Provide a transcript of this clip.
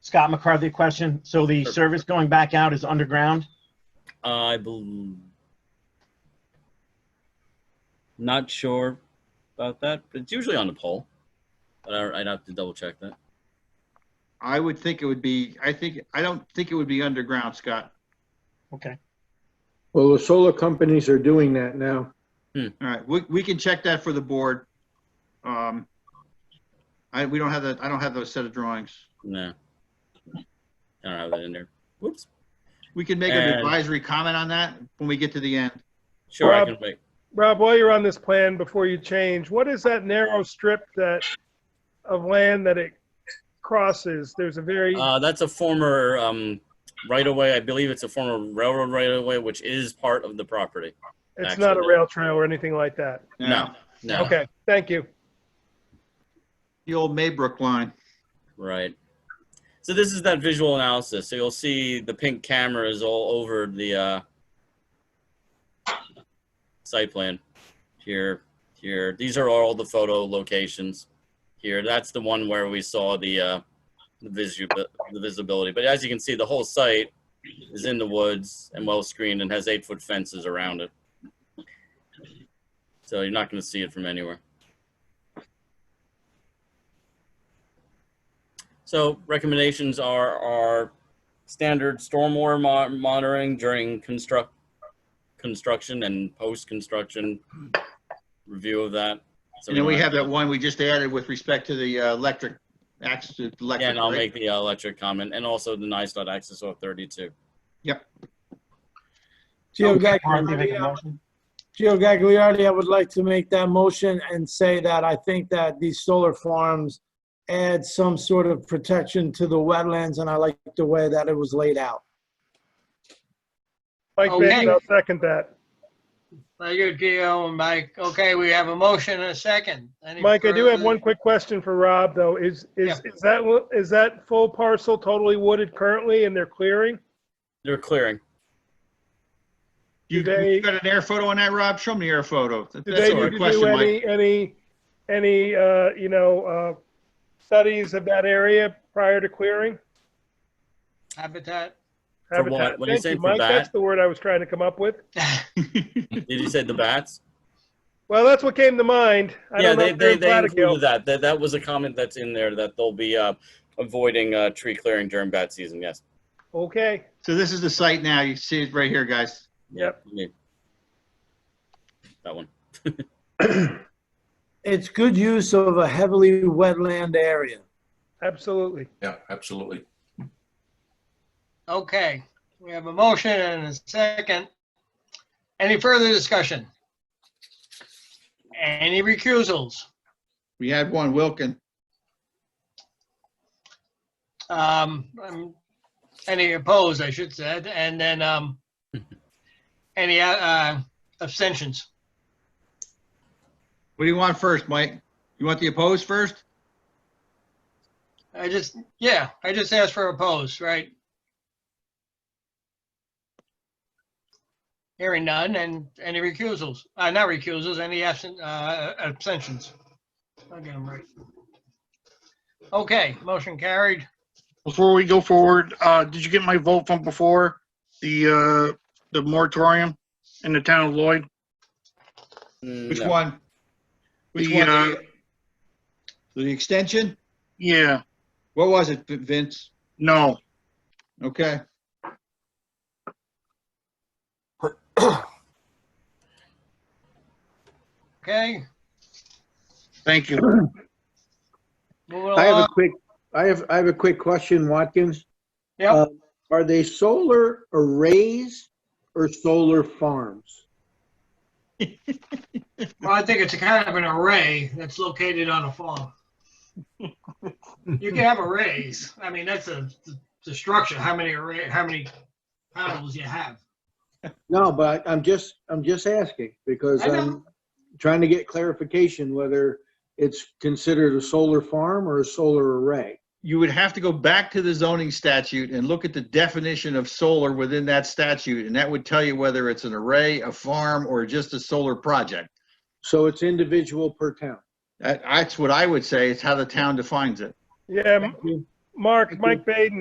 Scott McCarthy a question. So the Sure. service going back out is underground? I believe. Not sure about that, but it's usually on the pole. But I- I'd have to double check that. I would think it would be, I think, I don't think it would be underground, Scott. Okay. Well, the solar companies are doing that now. All right, we, we can check that for the board. Um, I, we don't have that, I don't have those set of drawings. No. I don't have that in there. Whoops. We can make an And- advisory comment on that when we get to the end. Sure, I Rob- can make. Rob, while you're on this plan, before you change, what is that narrow strip that, of land that it crosses? There's a very, Uh, that's a former um, right of way. I believe it's a former railroad right of way, which is part of the property. it's not a rail trail or anything like that. Uh, No. No. Okay, thank you. The old Maybrook line. Right. So this is that visual analysis. So you'll see the pink cameras all over the uh, site plan. Here, here. These are all the photo locations. Here, that's the one where we saw the uh, the, visu- the visibility. But as you can see, the whole site is in the woods and well screened and has eight foot fences around it. So you're not going to see it from anywhere. So recommendations are, are standard stormwater mo- monitoring during construct, construction and post-construction review of that. So And then we don't have that one we just added with respect to the uh, electric, access to electric. Yeah, and I'll right? make the uh, electric comment and also the nice dot access off 32. Gio Oh, McCarthy make a Gagliardi, motion? Gio Gagliardi, I would like to make that motion and say that I think that these solar farms add some sort of protection to the wetlands, and I like the way that it was laid out. Mike Okay. Bates, I'll second that. Very good, Gio and Mike. Okay, we have a motion and a second. Any Mike, I do have further- one quick question for Rob, though. Is, is, is that, is that full parcel totally wooded currently and they're clearing? They're clearing. You Today- you got an air photo on that, Rob? Show me the air photo. That- Do That's they a need good to question, do Mike. any, any, any, uh, you know, uh, studies of that area prior to clearing? Habitat. For what? Habitat. When you Thank say you, for Mike. bat- That's the word I was trying to come up with. Did you say the bats? Well, that's what came to mind. I yeah, don't know they, if they're they, in they included Platicille. that. that. That was a comment that's in there that they'll be uh, avoiding uh, tree clearing during bat season. Yes. Okay, So this is the site now. You see it right here, guys. Yep. Yeah, me. That one. It's good use of a heavily wetland area. absolutely. Yeah, absolutely. Okay, we have a motion and a second. Any further discussion? Any recusals? We had one, Wilkin. Um, um, any opposed, I should say, and then, um, any, uh, uh, abstentions? What do you want first, Mike? You want the opposed first? I just, yeah, I just asked for opposed, right? Hearing none, and any recusals, uh, not recusals, any absent, uh, abstentions? Okay, I'm right. Okay, motion carried. Before we go forward, uh, did you get my vote from before? The, uh, the moratorium in the town of Lloyd? Which No. one? Which The, one? uh, The- The extension? Yeah, What was it, Vin- Vince? no. Okay. Okay, Thank you. moving I have a along. quick, I have, I have a quick question, Watkins. Yep. Uh, Are they solar arrays or solar farms? Well, I think it's a kind of an array that's located on a farm. You can have arrays. I mean, that's a, the structure, how many array, how many panels you have. No, but I'm just, I'm just asking because I know. I'm trying to get clarification whether it's considered a solar farm or a solar array. You would have to go back to the zoning statute and look at the definition of solar within that statute, and that would tell you whether it's an array, a farm, or just a solar project. So it's individual per town. That, that's what I would say. It's how the town defines it. Yeah, M- you. Mark, Thank you. Mike Baden,